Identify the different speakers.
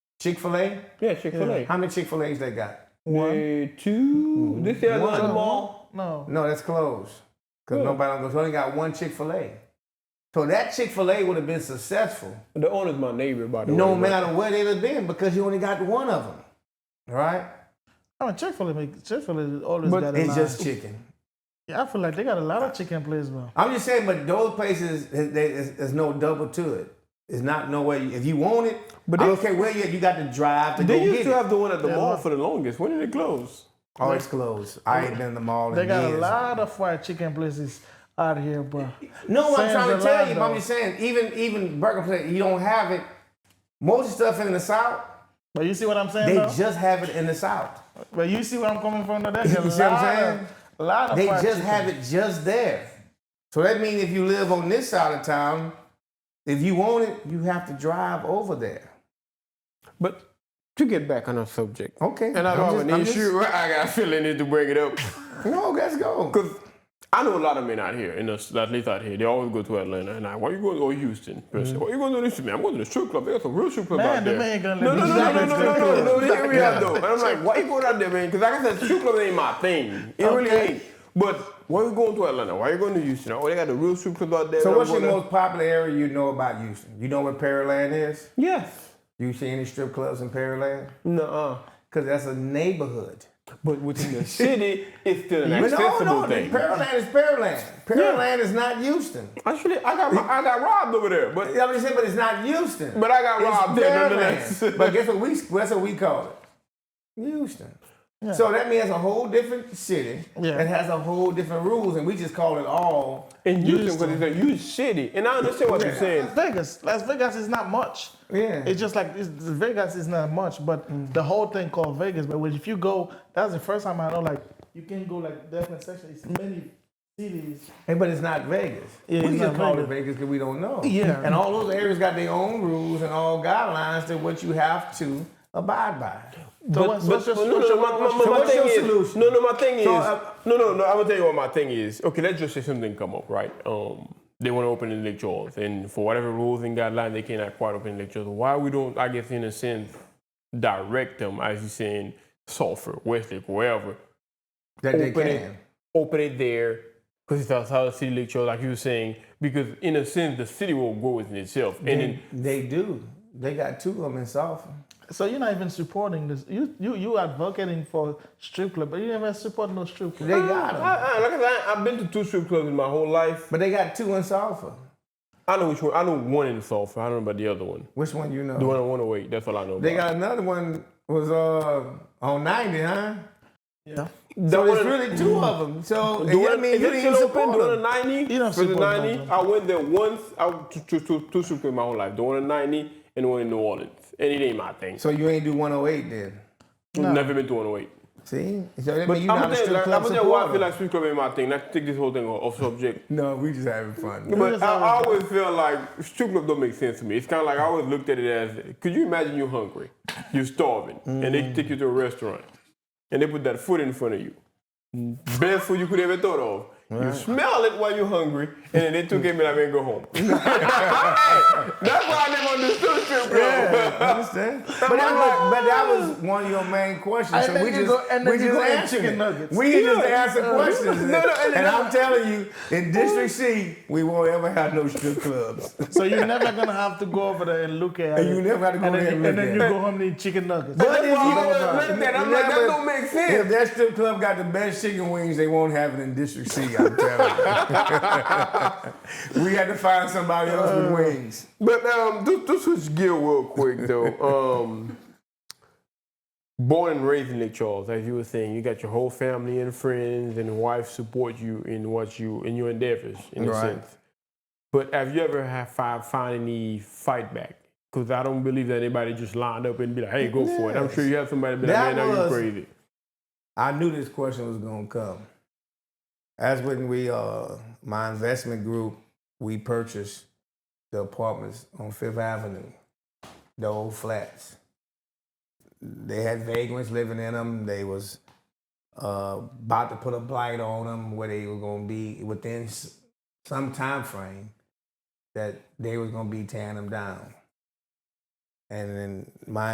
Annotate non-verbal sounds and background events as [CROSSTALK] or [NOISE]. Speaker 1: Chick Fil A.
Speaker 2: Yeah, Chick Fil A.
Speaker 1: How many Chick Fil A's they got?
Speaker 2: One, two. This the other one on the mall.
Speaker 3: No.
Speaker 1: No, that's closed. Cause nobody don't go. So only got one Chick Fil A. So that Chick Fil A would have been successful,
Speaker 2: The owner's my neighbor, by the
Speaker 1: no
Speaker 2: way. but-
Speaker 1: matter where they'd have been, because you only got one of them, right?
Speaker 3: I mean, Chick Fil A, Chick Fil A always
Speaker 2: But
Speaker 3: got a
Speaker 1: It's
Speaker 3: lot.
Speaker 1: just chicken.
Speaker 3: yeah, I feel like they got a lot of chicken places now.
Speaker 1: I'm just saying, but those places, there's, there's, there's no double to it. It's not no way. If you want it,
Speaker 2: But
Speaker 1: I
Speaker 2: they-
Speaker 1: don't care where you you got to drive to
Speaker 2: They
Speaker 1: go
Speaker 2: used
Speaker 1: get
Speaker 2: to
Speaker 1: it.
Speaker 2: have the one at the
Speaker 3: Yeah.
Speaker 2: mall for the longest. When did it close?
Speaker 1: oh, it's closed. I ain't been in the mall.
Speaker 3: They
Speaker 1: in
Speaker 3: got a
Speaker 1: years.
Speaker 3: lot of fried chicken places out here, bro.
Speaker 1: No, I'm
Speaker 3: Sam's
Speaker 1: trying to
Speaker 3: a
Speaker 1: tell
Speaker 3: lie,
Speaker 1: you. but I'm
Speaker 3: though.
Speaker 1: just saying, even even burger place, you don't have it. Most of the stuff in the South,
Speaker 3: But you see what I'm saying?
Speaker 1: they
Speaker 3: though?
Speaker 1: just have it in the South.
Speaker 3: but you see where I'm coming from? Though? There's
Speaker 1: You
Speaker 3: a
Speaker 1: see what I'm
Speaker 3: lot
Speaker 1: saying?
Speaker 3: Of, a lot of
Speaker 1: They
Speaker 3: fried
Speaker 1: just
Speaker 3: chicken.
Speaker 1: have it just there. So that means if you live on this side of town, if you want it, you have to drive over there.
Speaker 2: But to get back on our subject.
Speaker 1: Okay.
Speaker 2: And I
Speaker 1: I'm
Speaker 2: don't
Speaker 1: just-
Speaker 2: have an
Speaker 1: I'm just-
Speaker 2: issue. right? [LAUGHS] I got a feeling need to bring it up.
Speaker 1: No, let's go.
Speaker 2: Because I know a lot of men out here, in the, at least out here, they always go to Atlanta. And I, why you going to or Houston? per se. Why you going to this? Man, I'm going to the strip club. They got some real strip club
Speaker 3: Man,
Speaker 2: out
Speaker 3: the
Speaker 2: there.
Speaker 3: man gonna
Speaker 2: no,
Speaker 3: let
Speaker 2: no,
Speaker 3: me
Speaker 2: no, no,
Speaker 3: drive
Speaker 2: no,
Speaker 3: in
Speaker 2: no,
Speaker 3: strip
Speaker 2: no, no, no,
Speaker 3: club.
Speaker 2: They hear me out though. And I'm
Speaker 3: [LAUGHS]
Speaker 2: like, why you going out there, man? Because like I said, strip club ain't my thing. It really
Speaker 3: Okay.
Speaker 2: ain't. But why you going to Atlanta? Why you going to Houston? Oh, they got the real strip club out there.
Speaker 1: So
Speaker 2: and I'm
Speaker 1: what's your
Speaker 2: gonna-
Speaker 1: most popular area you know about Houston? You know where Pearland is?
Speaker 2: Yes.
Speaker 1: You see any strip clubs in Pearland?
Speaker 2: Nuh-uh.
Speaker 1: Because that's a neighborhood.
Speaker 2: But within the city, it's still an
Speaker 1: But no,
Speaker 2: accessible
Speaker 1: no,
Speaker 2: thing.
Speaker 1: Pearland is Pearland. Pearland is not Houston.
Speaker 2: Actually, I got my, I got robbed over there, but
Speaker 1: You know what I'm saying? But it's not Houston.
Speaker 2: But I got
Speaker 1: It's
Speaker 2: robbed there
Speaker 1: Pearland.
Speaker 2: nonetheless.
Speaker 1: but guess what we that's what we call it? Houston. So that means it's a whole different city.
Speaker 3: Yeah.
Speaker 1: It has a whole different rules, and we just call it all.
Speaker 2: in Houston because it's a huge city, and I understand what you're saying.
Speaker 3: Las Vegas, Las Vegas is not much.
Speaker 1: Yeah.
Speaker 3: It's just like it's, Vegas is not much, but the whole thing called Vegas. But when- if you go, that's the first time I know. Like you can go like different sections. It's many cities.
Speaker 1: Hey, but it's not Vegas.
Speaker 3: Yeah,
Speaker 1: we
Speaker 3: it's
Speaker 1: just
Speaker 3: not
Speaker 1: call
Speaker 3: Vegas.
Speaker 1: it Vegas because we don't know.
Speaker 3: Yeah.
Speaker 1: And all those areas got their own rules and all guidelines to what you have to abide by.
Speaker 3: So what's- what's your-
Speaker 2: no, no,
Speaker 3: what's
Speaker 2: no,
Speaker 3: your-
Speaker 2: my, my,
Speaker 3: what's
Speaker 2: my
Speaker 3: your-
Speaker 2: thing
Speaker 1: your
Speaker 2: is,
Speaker 1: solution?
Speaker 2: No, no, my thing
Speaker 1: So,
Speaker 2: is,
Speaker 1: uh,
Speaker 2: no, no, no. I'm gonna tell you what my thing is. Okay, let's just say something come up, right? Um, they want to open in Lake Charles, and for whatever rules and guidelines, they cannot quite open in Lake Charles. Why we don't? I guess in a sense, direct them as you saying Sulphur, Westlake, wherever.
Speaker 1: That they
Speaker 2: Open it.
Speaker 1: can.
Speaker 2: open it there because it's outside the city lecture, like you were saying. Because in a sense, the city will grow within itself, and then
Speaker 1: They do. They got two of them in South.
Speaker 3: So you're not even supporting this. You you you advocating for strip club, but you never support no strip club.
Speaker 1: They got
Speaker 3: ah.
Speaker 1: them.
Speaker 2: I, I, like I said, I, I've been to two strip clubs in my whole life.
Speaker 1: But they got two in Sulphur.
Speaker 2: I know which one. I know one in Sulphur. I don't know about the other one.
Speaker 1: Which one you know?
Speaker 2: The one on 108. That's all I know.
Speaker 1: They
Speaker 2: about.
Speaker 1: got another one was uh on 90, huh?
Speaker 3: Yeah.
Speaker 1: So
Speaker 2: one
Speaker 1: it's
Speaker 2: in-
Speaker 1: really two of them. So you
Speaker 2: The
Speaker 1: know what I
Speaker 2: one,
Speaker 1: mean, you
Speaker 2: is it
Speaker 1: didn't even
Speaker 2: still open?
Speaker 1: support
Speaker 2: The one on
Speaker 1: them.
Speaker 2: 90?
Speaker 3: You don't
Speaker 2: For the
Speaker 3: support
Speaker 2: 90,
Speaker 3: that,
Speaker 2: I went there once. I went to, to, to, two strip clubs my whole life. The one on 90 and the one in New Orleans. And it ain't my thing.
Speaker 1: So you ain't do 108 then.
Speaker 2: Never been to 108.
Speaker 1: See? So that means you not
Speaker 2: I'm
Speaker 1: a
Speaker 2: gonna tell you,
Speaker 1: strip
Speaker 2: like, I'm
Speaker 1: club
Speaker 2: gonna tell you why I
Speaker 1: supporter.
Speaker 2: feel like strip club ain't my thing. Let's take this whole thing off off subject.
Speaker 1: no, we just having
Speaker 2: [LAUGHS]
Speaker 1: fun.
Speaker 2: But
Speaker 3: just
Speaker 2: I, I
Speaker 3: always-
Speaker 2: always feel like strip club don't make sense to me. It's kind of like I always looked at it as, could you imagine you're hungry, you're starving, and they take you to a restaurant, and they put that food in front of you,
Speaker 1: Mm.
Speaker 2: best food you could ever thought of. You smell it while you're hungry, and then they
Speaker 1: Mm.
Speaker 2: took it and I mean go
Speaker 1: [LAUGHS]
Speaker 2: home. That's why I never understood strip club.
Speaker 1: Yeah, I understand. but, that was, but that was one of your main questions.
Speaker 3: And
Speaker 1: So
Speaker 3: then
Speaker 1: we
Speaker 3: you
Speaker 1: just,
Speaker 3: go- and then
Speaker 1: we
Speaker 3: you
Speaker 1: just
Speaker 3: go and
Speaker 1: answered
Speaker 3: chicken
Speaker 1: it.
Speaker 3: nuggets.
Speaker 1: We just
Speaker 2: Yeah.
Speaker 1: answered
Speaker 2: Uh,
Speaker 1: questions.
Speaker 2: no, no,
Speaker 1: and
Speaker 2: and-
Speaker 1: I'm telling you, in District C, we won't ever have no strip clubs. [LAUGHS]
Speaker 3: So you're never gonna have to go over there and look at
Speaker 1: And [LAUGHS]
Speaker 3: it.
Speaker 1: you never have to go
Speaker 3: and
Speaker 1: there
Speaker 3: then,
Speaker 1: and look
Speaker 3: and then
Speaker 1: at
Speaker 3: you
Speaker 1: it.
Speaker 3: go home and eat chicken nuggets.
Speaker 1: But
Speaker 2: That's
Speaker 1: if
Speaker 2: why
Speaker 1: you
Speaker 2: I always looked at it. I'm like, that
Speaker 1: Remember,
Speaker 2: don't make sense.
Speaker 1: If that strip club got the best chicken wings, they won't have it in District C. I'm telling you. [LAUGHS] we had to find somebody else with wings.
Speaker 2: But um, just, just switch gear real
Speaker 1: [LAUGHS]
Speaker 2: quick though. Um, born and raised in Lake Charles, as you were saying, you got your whole family and friends and wife support you in what you in your endeavors, in a
Speaker 1: Right.
Speaker 2: sense. But have you ever have find, find any fight back? Because I don't believe that anybody just lined up and be like, "Hey, go for it." I'm sure you have somebody be like,
Speaker 1: That
Speaker 2: "Man, now you
Speaker 1: was-
Speaker 2: crazy."
Speaker 1: I knew this question was gonna come. That's when we, uh, my investment group, we purchased the apartments on Fifth Avenue, the old flats. They had vagrants living in them. They was uh, about to put a blight on them where they were gonna be within s- some time frame that they was gonna be tearing them down. And then my